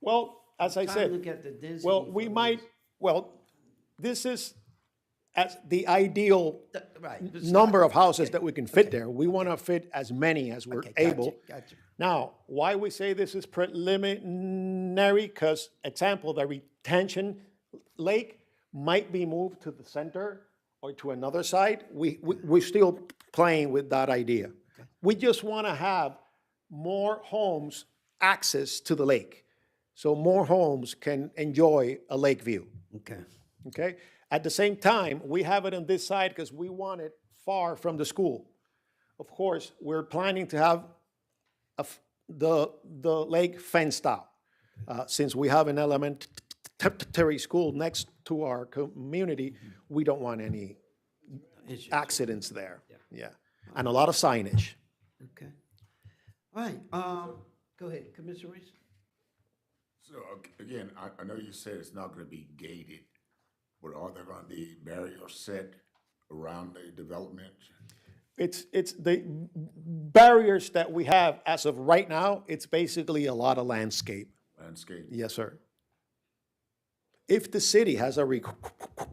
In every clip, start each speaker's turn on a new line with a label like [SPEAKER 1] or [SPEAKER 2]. [SPEAKER 1] Well, as I
[SPEAKER 2] Trying to
[SPEAKER 1] said,
[SPEAKER 2] look at the density.
[SPEAKER 1] well, we
[SPEAKER 2] for
[SPEAKER 1] might,
[SPEAKER 2] those.
[SPEAKER 1] well, this is as the ideal
[SPEAKER 2] Th- Right. it's not-
[SPEAKER 1] number of houses that we can fit there. We want to fit as many as we're
[SPEAKER 2] Okay, gotcha,
[SPEAKER 1] able.
[SPEAKER 2] gotcha.
[SPEAKER 1] Now, why we say this is preliminary, because example, the retention lake might be moved to the center or to another side. We, we, we're still playing with that idea. We just want to have more homes access to the lake. So more homes can enjoy a lake view.
[SPEAKER 2] Okay.
[SPEAKER 1] Okay? At the same time, we have it on this side because we want it far from the school. Of course, we're planning to have a f- the, the lake fenced out. Uh, Since we have an elementary school next to our community, we don't want any
[SPEAKER 2] Issue.
[SPEAKER 1] accidents there. Yeah. And a lot of signage.
[SPEAKER 2] Okay. All right, um, go ahead, Commissioner Reese.
[SPEAKER 3] So ag- again, I, I know you said it's not gonna be gated, but are there gonna be barriers set around the development?
[SPEAKER 1] It's, it's the barriers that we have as of right now, it's basically a lot of landscape.
[SPEAKER 3] Landscape?
[SPEAKER 1] Yes, sir. If the city has a requ-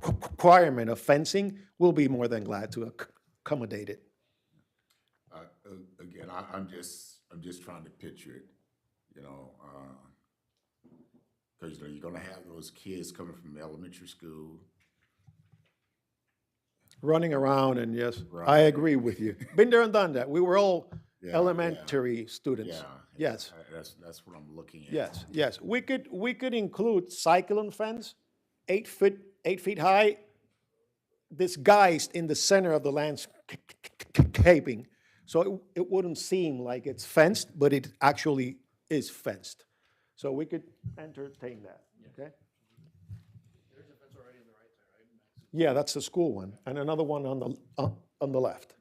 [SPEAKER 1] requirement of fencing, we'll be more than glad to ac- accommodate it.
[SPEAKER 3] Uh, a- again, I, I'm just, I'm just trying to picture it, you know, uh, cause you know, you're gonna have those kids coming from elementary school.
[SPEAKER 1] Running around and yes, I agree with you. Been there and done that. We were all
[SPEAKER 3] yeah.
[SPEAKER 1] elementary students.
[SPEAKER 3] Yeah.
[SPEAKER 1] Yes,
[SPEAKER 3] I- That's, that's what I'm looking at.
[SPEAKER 1] yes, yes. We could, we could include cyclone fence, eight foot, eight feet high, disguised in the center of the landscaping. So it, it wouldn't seem like it's fenced, but it actually is fenced. So we could entertain that, okay? Yeah, that's the school one, and another one on the, on- on the left,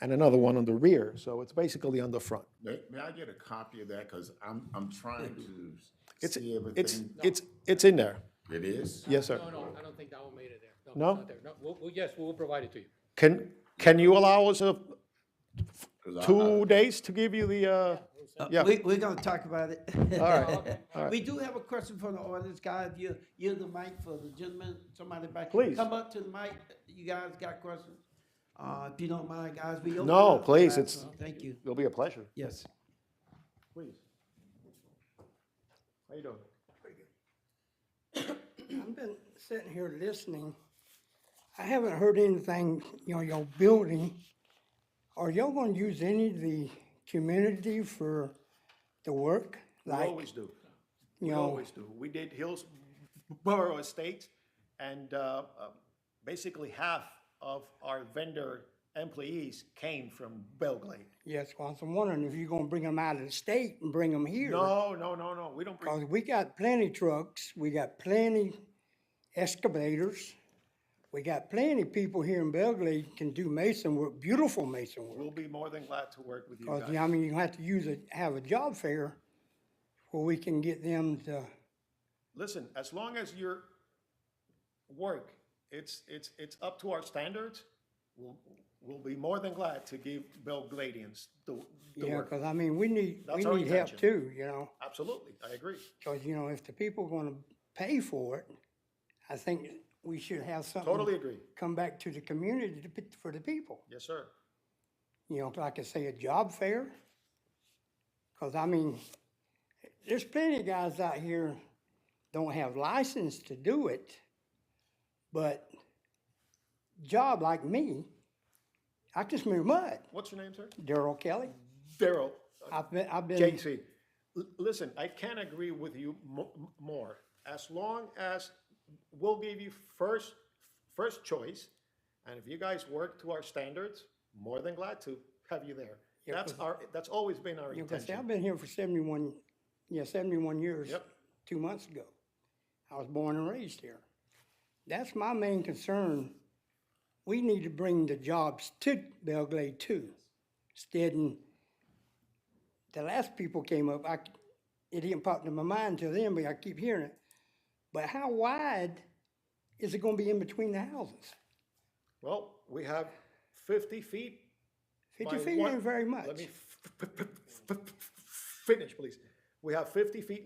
[SPEAKER 1] and another one on the rear, so it's basically on the front.
[SPEAKER 3] May, may I get a copy of that? Cause I'm, I'm trying to
[SPEAKER 1] It's,
[SPEAKER 3] see
[SPEAKER 1] it's,
[SPEAKER 3] everything.
[SPEAKER 1] it's, it's in there,
[SPEAKER 3] It is?
[SPEAKER 1] yes, sir.
[SPEAKER 4] No, no, I don't think that one made it there.
[SPEAKER 1] No?
[SPEAKER 4] it's not there. No, we'll, we'll- yes, we'll provide it to you.
[SPEAKER 1] Can, can you allow us a
[SPEAKER 3] 'Cause I- I-
[SPEAKER 1] two days to give you the, uh,
[SPEAKER 2] Uh,
[SPEAKER 1] Yeah.
[SPEAKER 2] We, we're gonna talk about it.
[SPEAKER 1] all right,
[SPEAKER 2] We do have a question from the audience, guy, if you, yield the mic for the gentleman, somebody back.
[SPEAKER 1] Please.
[SPEAKER 2] Come up to the mic, you guys got questions? Uh, if you don't mind, guys, we. open
[SPEAKER 1] No,
[SPEAKER 2] up for
[SPEAKER 1] please,
[SPEAKER 2] that,
[SPEAKER 1] it's-
[SPEAKER 2] so Thank you,
[SPEAKER 1] it'll be a pleasure.
[SPEAKER 2] yes.
[SPEAKER 1] Please. How you doing?
[SPEAKER 5] I've been sitting here listening. I haven't heard anything, you know, your building. Are y'all gonna use any of the community for the work?
[SPEAKER 1] We
[SPEAKER 5] Like,
[SPEAKER 1] always do.
[SPEAKER 5] you
[SPEAKER 1] We
[SPEAKER 5] know,
[SPEAKER 1] always do. We did Hillsborough Estates, and uh, uh, basically half of our vendor employees came from Belgrade.
[SPEAKER 5] yes, well, I'm wondering if you're gonna bring them out of the state and bring them here?
[SPEAKER 1] No, no, no, no, we don't bring,
[SPEAKER 5] Cause we got plenty trucks, we got plenty excavators. We got plenty people here in Belgrade can do mason work, beautiful mason work.
[SPEAKER 1] we'll be more than glad to work with you
[SPEAKER 5] Cause,
[SPEAKER 1] guys.
[SPEAKER 5] I mean, you have to use a, have a job fair where we can get them to,
[SPEAKER 1] Listen, as long as your work, it's, it's, it's up to our standards, we'll, we'll be more than glad to give Belgradians the, the
[SPEAKER 5] yeah,
[SPEAKER 1] work.
[SPEAKER 5] cause I mean, we need, we
[SPEAKER 1] That's our
[SPEAKER 5] need help
[SPEAKER 1] intention.
[SPEAKER 5] too, you know?
[SPEAKER 1] Absolutely, I agree.
[SPEAKER 5] Cause, you know, if the people gonna pay for it, I think we should have something.
[SPEAKER 1] Totally agree.
[SPEAKER 5] Come back to the community to, put- for the people,
[SPEAKER 1] Yes, sir.
[SPEAKER 5] you know, like I say, a job fair. Cause I mean, there's plenty of guys out here don't have license to do it, but job like me, I can smear mud.
[SPEAKER 1] What's your name, sir?
[SPEAKER 5] Daryl Kelly.
[SPEAKER 1] Daryl.
[SPEAKER 5] I've been, I've been,
[SPEAKER 1] JC, l- listen, I can't agree with you mo- m- more. As long as we'll give you first, first choice, and if you guys work to our standards, more than glad to have you there. That's our, that's always been our
[SPEAKER 5] you can say, I've
[SPEAKER 1] intention.
[SPEAKER 5] been here for seventy-one, yeah, seventy-one years.
[SPEAKER 1] Yep.
[SPEAKER 5] Two months ago. I was born and raised here. That's my main concern. We need to bring the jobs to Belgrade too. Instead, and the last people came up, I, it didn't pop into my mind till then, but I keep hearing it. But how wide is it gonna be in between the houses?
[SPEAKER 1] Well, we have fifty feet.
[SPEAKER 5] Fifty
[SPEAKER 1] by
[SPEAKER 5] feet
[SPEAKER 1] one-
[SPEAKER 5] ain't very much.
[SPEAKER 1] Let me f- f- f- f- f- finish, please. We have fifty feet